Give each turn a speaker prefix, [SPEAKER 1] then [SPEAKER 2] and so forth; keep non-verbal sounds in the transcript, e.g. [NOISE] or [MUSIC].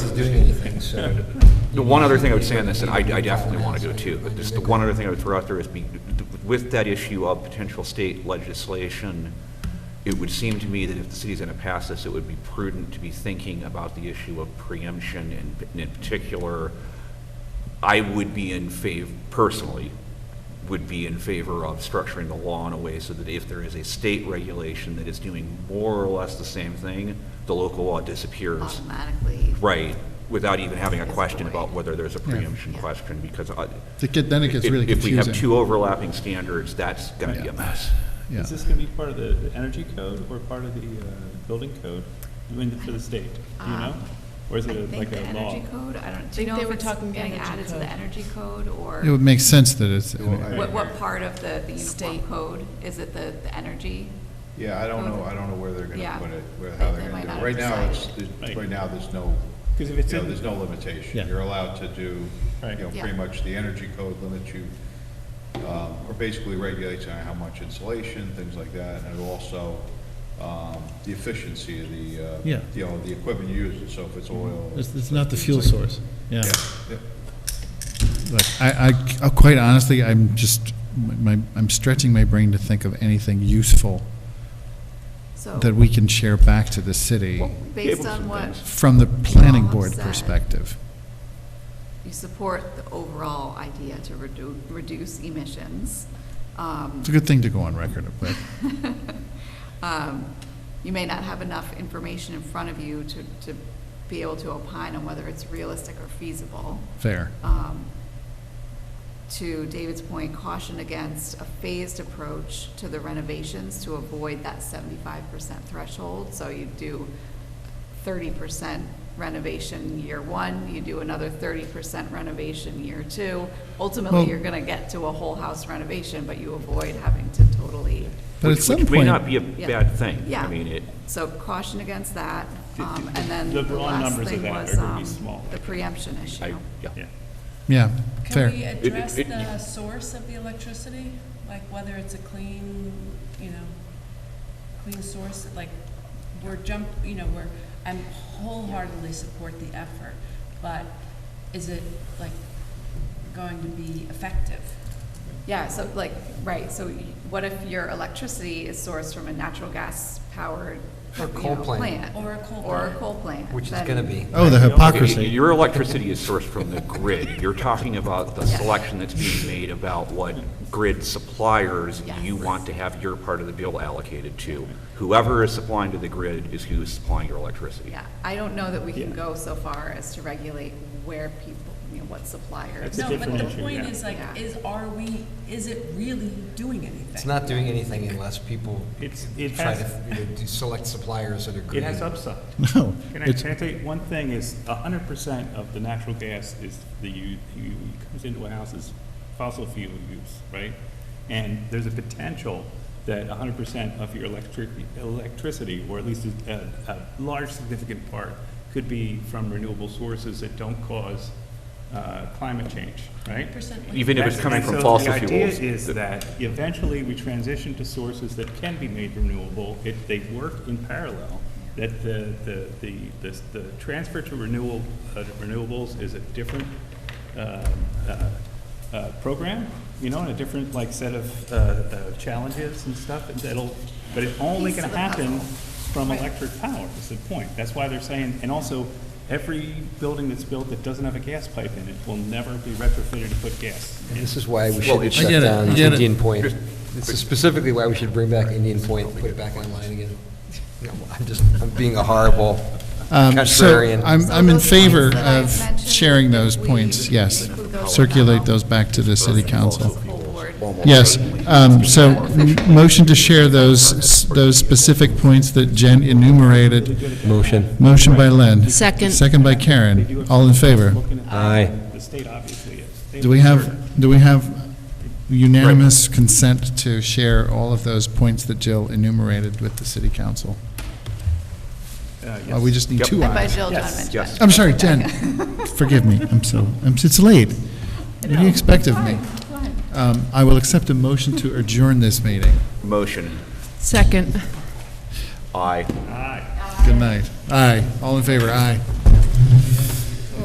[SPEAKER 1] doing anything, so.
[SPEAKER 2] The one other thing I would say on this, and I, I definitely want to do too, but just the one other thing I would throw out there is be, with that issue of potential state legislation, it would seem to me that if the city's going to pass this, it would be prudent to be thinking about the issue of preemption and and in particular, I would be in favor, personally, would be in favor of structuring the law in a way so that if there is a state regulation that is doing more or less the same thing, the local law disappears.
[SPEAKER 3] automatically.
[SPEAKER 2] Right, without even having a
[SPEAKER 3] Is the
[SPEAKER 2] question about
[SPEAKER 3] way.
[SPEAKER 2] whether there's a
[SPEAKER 4] Yeah.
[SPEAKER 2] preemption
[SPEAKER 3] Yeah.
[SPEAKER 2] question, because I-
[SPEAKER 4] To get- Then it
[SPEAKER 2] if
[SPEAKER 4] gets really
[SPEAKER 2] if we have
[SPEAKER 4] confusing.
[SPEAKER 2] two overlapping standards, that's going to be a
[SPEAKER 4] Yeah.
[SPEAKER 2] mess.
[SPEAKER 4] Yeah.
[SPEAKER 5] Is this going to be part of the the energy code or part of the uh, building code I mean, for the state? Do you know?
[SPEAKER 3] Um,
[SPEAKER 5] Or is
[SPEAKER 3] I
[SPEAKER 5] it a-
[SPEAKER 3] think
[SPEAKER 5] like
[SPEAKER 3] the
[SPEAKER 5] a law?
[SPEAKER 3] energy code, I don't, do
[SPEAKER 6] They-
[SPEAKER 3] you know
[SPEAKER 6] they
[SPEAKER 3] if
[SPEAKER 6] were
[SPEAKER 3] it's
[SPEAKER 6] talking
[SPEAKER 3] getting
[SPEAKER 6] energy
[SPEAKER 3] added to
[SPEAKER 6] code.
[SPEAKER 3] the energy code
[SPEAKER 4] It would
[SPEAKER 3] or
[SPEAKER 4] make sense that it's,
[SPEAKER 3] what, what part of the, the
[SPEAKER 6] State.
[SPEAKER 3] uniform code? Is it the, the energy?
[SPEAKER 7] Yeah, I don't know, I don't know where they're gonna
[SPEAKER 3] Yeah.
[SPEAKER 7] put it, where,
[SPEAKER 3] They-
[SPEAKER 7] how
[SPEAKER 3] they
[SPEAKER 7] they're
[SPEAKER 3] might
[SPEAKER 7] gonna do
[SPEAKER 3] not
[SPEAKER 7] it.
[SPEAKER 3] have
[SPEAKER 7] Right now, it's,
[SPEAKER 3] decided.
[SPEAKER 7] there's-
[SPEAKER 5] Right.
[SPEAKER 7] right now, there's no,
[SPEAKER 5] Because if
[SPEAKER 7] you
[SPEAKER 5] it's
[SPEAKER 7] know,
[SPEAKER 5] in-
[SPEAKER 7] there's no limitation. You're allowed to do, you
[SPEAKER 5] Right.
[SPEAKER 7] know,
[SPEAKER 3] Yeah.
[SPEAKER 7] pretty much the energy code limits you, um, or basically regulates on how much insulation, things like that, and it also, um, the efficiency of the,
[SPEAKER 8] Yeah. Mm-hmm.
[SPEAKER 7] uh, you know, the equipment used, so if it's oil.
[SPEAKER 8] It's, it's not the fuel source, yeah.
[SPEAKER 7] Yeah.
[SPEAKER 4] Look, I, I- uh, quite honestly, I'm just, my, I'm stretching my brain to think of anything useful
[SPEAKER 3] So,
[SPEAKER 4] that we can share back to the city
[SPEAKER 3] based
[SPEAKER 2] Tables
[SPEAKER 3] on
[SPEAKER 2] and
[SPEAKER 3] what,
[SPEAKER 2] things.
[SPEAKER 4] from the planning
[SPEAKER 3] Well,
[SPEAKER 4] board
[SPEAKER 3] upset.
[SPEAKER 4] perspective.
[SPEAKER 3] you support the overall idea to redu- reduce emissions. Um,
[SPEAKER 4] It's
[SPEAKER 3] [LAUGHS]
[SPEAKER 4] a good thing to go on record with.
[SPEAKER 3] um, You may not have enough information in front of you to, to be able to opine on whether it's realistic or feasible.
[SPEAKER 4] Fair.
[SPEAKER 3] um, To David's point, caution against a phased approach to the renovations to avoid that seventy-five percent threshold. So you do thirty percent renovation year one, you do another thirty percent renovation year two. Ultimately,
[SPEAKER 4] Well-
[SPEAKER 3] you're gonna get to a whole house renovation, but you avoid having to totally,
[SPEAKER 4] But at
[SPEAKER 2] Which-
[SPEAKER 4] some
[SPEAKER 2] Which may
[SPEAKER 4] point-
[SPEAKER 2] not be a
[SPEAKER 3] Yeah.
[SPEAKER 2] bad thing.
[SPEAKER 3] Yeah.
[SPEAKER 2] I mean, it,
[SPEAKER 3] so caution against that. Um, And then
[SPEAKER 5] The
[SPEAKER 3] the
[SPEAKER 5] raw
[SPEAKER 3] last
[SPEAKER 5] numbers of
[SPEAKER 3] thing
[SPEAKER 5] that
[SPEAKER 3] was,
[SPEAKER 5] are gonna be
[SPEAKER 3] um,
[SPEAKER 5] small.
[SPEAKER 3] the preemption
[SPEAKER 2] I,
[SPEAKER 3] issue.
[SPEAKER 2] yeah.
[SPEAKER 5] Yeah.
[SPEAKER 4] Yeah,
[SPEAKER 6] Can we uh,
[SPEAKER 4] fair.
[SPEAKER 6] address
[SPEAKER 2] it-
[SPEAKER 6] the source of the electricity? Like whether it's a clean, you know, clean source, like we're jump, you know, we're, I'm wholeheartedly support the effort, but is it like going to be effective?
[SPEAKER 3] Yeah, so like, right, so what if your electricity is sourced from a natural gas powered,
[SPEAKER 1] Or
[SPEAKER 3] you
[SPEAKER 1] coal
[SPEAKER 3] know,
[SPEAKER 1] plant.
[SPEAKER 3] plant?
[SPEAKER 6] Or a coal
[SPEAKER 3] Or a
[SPEAKER 6] plant.
[SPEAKER 3] coal plant.
[SPEAKER 1] Which is
[SPEAKER 3] then-
[SPEAKER 1] going to be.
[SPEAKER 4] Oh, the
[SPEAKER 2] Okay,
[SPEAKER 4] hypocrisy.
[SPEAKER 2] Your electricity is sourced from the grid. You're talking about the
[SPEAKER 3] Yeah.
[SPEAKER 2] selection that's being made about what grid suppliers
[SPEAKER 3] Yes.
[SPEAKER 2] you want to have your part of the bill allocated to. Whoever is supplying to the grid is who's supplying your electricity.
[SPEAKER 3] Yeah, I don't know that we can
[SPEAKER 5] Yeah.
[SPEAKER 3] go so far as to regulate where people, you know, what suppliers.
[SPEAKER 5] It's a
[SPEAKER 6] No, but
[SPEAKER 5] different
[SPEAKER 6] the
[SPEAKER 5] issue,
[SPEAKER 6] point
[SPEAKER 5] yeah.
[SPEAKER 6] is like,
[SPEAKER 3] Yeah.
[SPEAKER 6] is, are we, is it really doing anything?
[SPEAKER 1] It's not doing anything unless people
[SPEAKER 5] It's- it
[SPEAKER 1] try
[SPEAKER 5] has-
[SPEAKER 1] to, you know, do select suppliers that agree.
[SPEAKER 5] It has upside.
[SPEAKER 4] [LAUGHS]
[SPEAKER 2] [LAUGHS]
[SPEAKER 4] No,
[SPEAKER 5] Can I,
[SPEAKER 4] it's,
[SPEAKER 5] can I tell you, one thing is, a hundred percent of the natural gas is the, u- u- comes into a house is fossil fuel use, right? And there's a potential that a hundred percent of your electric, electricity, or at least a, a a large significant part, could be from renewable sources that don't cause, uh, climate change, right?
[SPEAKER 6] Percent.
[SPEAKER 2] Even if it's
[SPEAKER 5] That's-
[SPEAKER 2] coming
[SPEAKER 5] and
[SPEAKER 2] from
[SPEAKER 5] so
[SPEAKER 2] fossil
[SPEAKER 5] The idea
[SPEAKER 2] fuels.
[SPEAKER 5] is that eventually we transition to sources that can be made renewable if they work in parallel. That the, the, the, the, the transfer to renewal, uh, renewables is a different, uh, uh, uh, program, you know, and a different, like, set of, uh, uh, challenges and stuff and that'll, but it's only
[SPEAKER 3] Piece
[SPEAKER 5] gonna
[SPEAKER 3] of the puzzle.
[SPEAKER 5] happen from electric power, is the point. That's why they're saying, and also, every building that's built that doesn't have a gas pipe in it will never be retrofitted to put gas. in.
[SPEAKER 1] This is why we
[SPEAKER 2] Well,
[SPEAKER 1] should
[SPEAKER 2] it's-
[SPEAKER 4] I
[SPEAKER 1] shut
[SPEAKER 4] get it,
[SPEAKER 1] down
[SPEAKER 4] I get it.
[SPEAKER 1] Indian Point. This is specifically why we should bring back Indian Point and put it back online again. No, I'm just, I'm being a horrible
[SPEAKER 4] um, so
[SPEAKER 1] contrarian.
[SPEAKER 4] I'm,
[SPEAKER 3] So
[SPEAKER 4] I'm in
[SPEAKER 3] those
[SPEAKER 4] favor
[SPEAKER 3] points that I've
[SPEAKER 4] of
[SPEAKER 3] mentioned,
[SPEAKER 4] sharing those
[SPEAKER 3] we
[SPEAKER 4] points, yes.
[SPEAKER 3] include those
[SPEAKER 4] Circulate
[SPEAKER 3] now.
[SPEAKER 4] those back to the city council.
[SPEAKER 3] Full board.
[SPEAKER 4] Yes, um, so m- motion to share those, s- those specific points that Jen enumerated.
[SPEAKER 8] Motion.
[SPEAKER 4] Motion by Len.
[SPEAKER 6] Second.
[SPEAKER 4] Second by
[SPEAKER 5] They do
[SPEAKER 4] Karen.
[SPEAKER 5] it-
[SPEAKER 4] All in favor?
[SPEAKER 5] Looking at that,
[SPEAKER 1] Aye.
[SPEAKER 5] The state obviously is. They-
[SPEAKER 4] Do we have, do we have unanimous consent to share all of those points that Jill enumerated with the city council?
[SPEAKER 5] Uh,
[SPEAKER 4] Uh, We
[SPEAKER 5] yes.
[SPEAKER 4] just need
[SPEAKER 2] Yep.
[SPEAKER 4] two
[SPEAKER 3] And by
[SPEAKER 4] eyes.
[SPEAKER 3] Jill
[SPEAKER 5] Yes,
[SPEAKER 3] Donovan.
[SPEAKER 2] yes.
[SPEAKER 4] I'm sorry,
[SPEAKER 3] [LAUGHS]
[SPEAKER 4] Jen. Forgive me. I'm so, I'm, it's late. What do you expect of me? Um, I will accept a motion to adjourn this meeting.
[SPEAKER 2] Motion,
[SPEAKER 6] Second.
[SPEAKER 2] aye.
[SPEAKER 4] Good night. Aye. All in favor? Aye.